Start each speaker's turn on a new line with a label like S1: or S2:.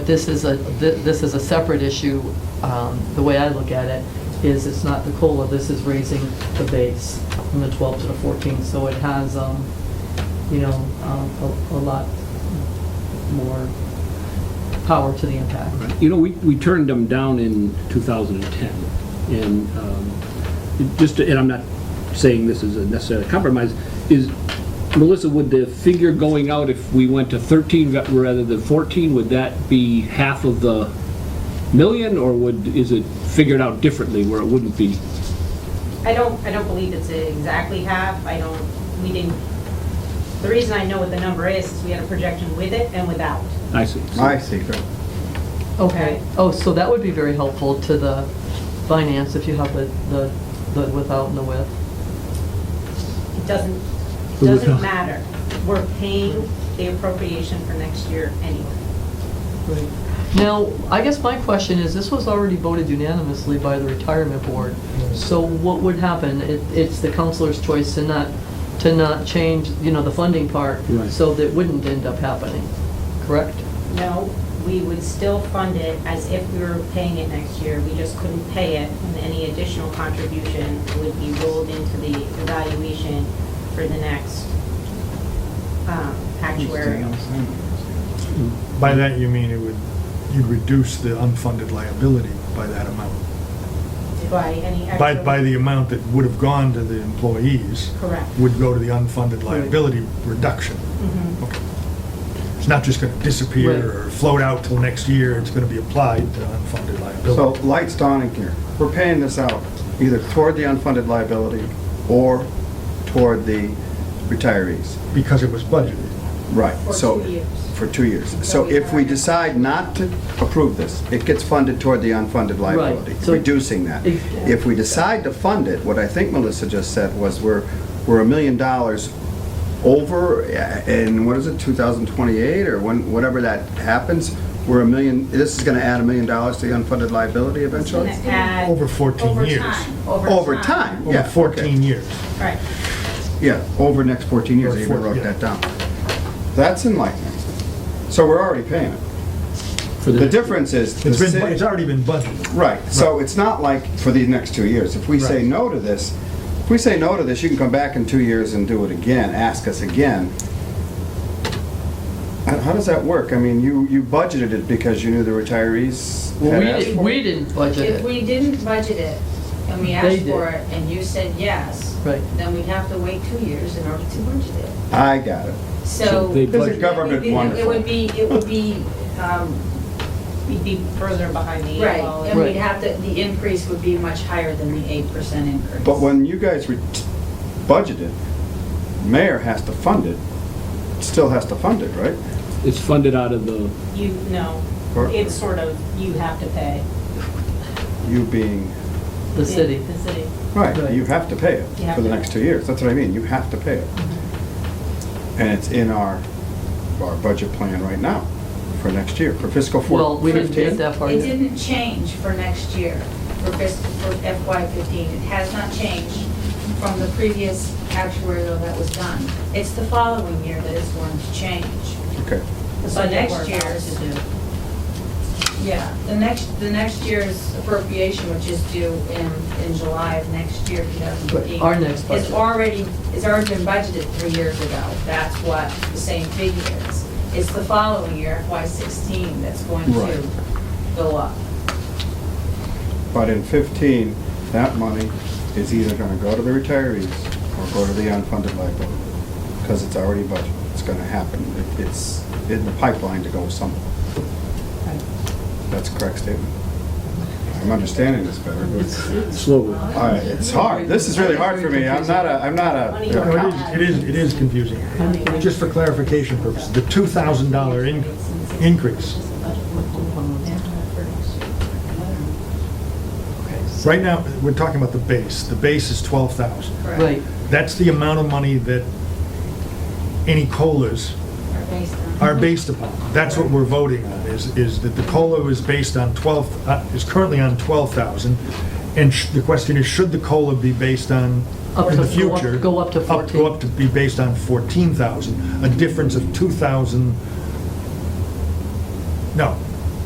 S1: This is a, thi- this is a separate issue. Um, The way I look at it is it's not the COLA, this is raising the base from the 12 to the 14. So it has, um, you know, um, a a lot more power to the impact.
S2: You know, we, we turned them down in 2010, and um, it just, and I'm not saying this is a necessary compromise, is, Melissa, would the figure going out if we went to 13 ra- rather than 14, would that be half of the million, or would, is it figured out differently where it wouldn't be?
S3: I don't, I don't believe it's exactly half, I don't, we didn't, the reason I know what the number is, is we had a projection with it and without.
S2: I see.
S4: I see.
S1: Okay, oh, so that would be very helpful to the finance if you have the, the the without and the with.
S3: It doesn't, it
S2: But
S3: doesn't
S2: without-
S3: matter, we're paying the appropriation for next year anyway.
S1: Right. Now, I guess my question is, this was already voted unanimously by the retirement board, so what would happen? It- It's the councilor's choice to not, to not change, you know, the funding part,
S2: Right.
S1: so that wouldn't end up happening, correct?
S3: No, we would still fund it as if we were paying it next year, we just couldn't pay it, and any additional contribution would be rolled into the evaluation for the next um, actuarial.
S5: By that, you mean it would, you reduce the unfunded liability by that amount,
S3: By any actual.
S5: by, by the amount that would have gone to the employees.
S3: Correct.
S5: Would go to the unfunded liability reduction.
S3: Mhm.
S5: Okay. It's not just gonna disappear or float out till next year, it's gonna be applied to unfunded
S4: So,
S5: liability.
S4: lights dawning here. We're paying this out either toward the unfunded liability or toward the retirees.
S5: Because it was budgeted.
S4: Right,
S3: For
S4: so.
S3: two years.
S4: For two years. So if we decide not to approve this, it gets funded toward the unfunded liability,
S1: so-
S4: reducing that.
S1: Ex-
S4: If we decide to fund it, what I think Melissa just said was we're, we're a million dollars over uh, in, what is it, 2028 or when, whatever that happens, we're a million, this is gonna add a million dollars to the unfunded liability
S3: Gonna
S4: eventually?
S3: add-
S5: Over 14 years.
S3: Over time.
S4: Over time, yeah.
S5: Over
S4: okay.
S5: 14 years.
S3: Right.
S4: Yeah, over the next 14 years,
S5: Or
S4: I even
S5: four-
S4: wrote
S5: yeah.
S4: that down. That's enlightening. So we're already paying it.
S2: For
S4: The difference is, the
S5: It's been, it's
S4: city-
S5: already been budgeted.
S4: right, so it's not like for these next two years. If we say
S5: Right.
S4: no to this, if we say no to this, you can come back in two years and do it again, ask us again. How how does that work? I mean, you, you budgeted it because you knew the retirees
S1: Well,
S4: had
S1: we
S4: asked
S1: didn't-
S4: for it?
S1: we didn't budget
S6: If
S1: it.
S6: we didn't budget it, and we
S1: They
S6: asked
S1: did.
S6: for it, and you said yes,
S1: Right.
S6: then we'd have to wait two years in order to budget it.
S4: I got it.
S2: So
S6: So.
S2: they
S6: it would
S4: This is
S2: budget.
S4: government
S6: be- It
S4: wonderful.
S6: would be, it would be, um,
S3: We'd be further behind the eight
S6: right,
S3: ball.
S6: and
S1: Right.
S6: we'd have to, the increase would be much higher than the eight percent increase.
S4: But when you guys re- budgeted, mayor has to fund it, still has to fund it, right?
S2: It's funded out of the,
S3: You, no,
S4: Or-
S3: it's sort of, you have to pay.
S4: You being,
S1: The city.
S3: The city.
S4: right,
S1: Right.
S4: you have to pay
S3: You
S4: it
S3: have
S4: for the
S3: to.
S4: next two years, that's what I mean, you have to pay it.
S1: Mm-hmm.
S4: And it's in our, our budget plan right now for next year, for fiscal four-
S1: Well, we didn't get
S4: 15.
S1: that far
S6: It
S1: yet.
S6: didn't change for next year, for fiscal, for FY fifteen. It has not changed from the previous actuarial that was done. It's the following year that it's going to change.
S4: Okay,
S6: So next
S3: Budget we're about
S6: year's,
S3: to do.
S6: Yeah, the next, the next year's appropriation, which is due in, in July of next year, 2015.
S1: Our next budget.
S6: Is already, is already been budgeted three years ago. That's what the same figure is. It's the following year, FY16, that's going
S4: Right.
S6: to go up.
S4: but in fifteen, that money is either gonna go to the retirees or go to the unfunded liability, because it's already budgeted, it's gonna happen, It- it's in the pipeline to go somewhere. That's a correct statement. I'm understanding this better, but,
S2: slowly.
S4: all right, it's hard, this is really hard for me, I'm not a, I'm not a
S5: No,
S4: an accountant.
S5: It is, it is- it is confusing. Just for clarification purposes, the $2,000 in- increase, right now, we're talking about the base. The base is 12,000.
S1: Right,
S5: That's the amount of money that any COLAs
S6: Or based on-
S1: Mm-hmm.
S5: are based upon. That's what we're voting on, is, is that the COLA is based on 12, uh, is currently on 12,000. And sh- the question is, should the COLA be based on,
S1: Up
S5: in
S1: to
S5: the
S1: go up-
S5: future?
S1: go up to
S5: Go up to be based on 14,000, a difference of 2,000. No,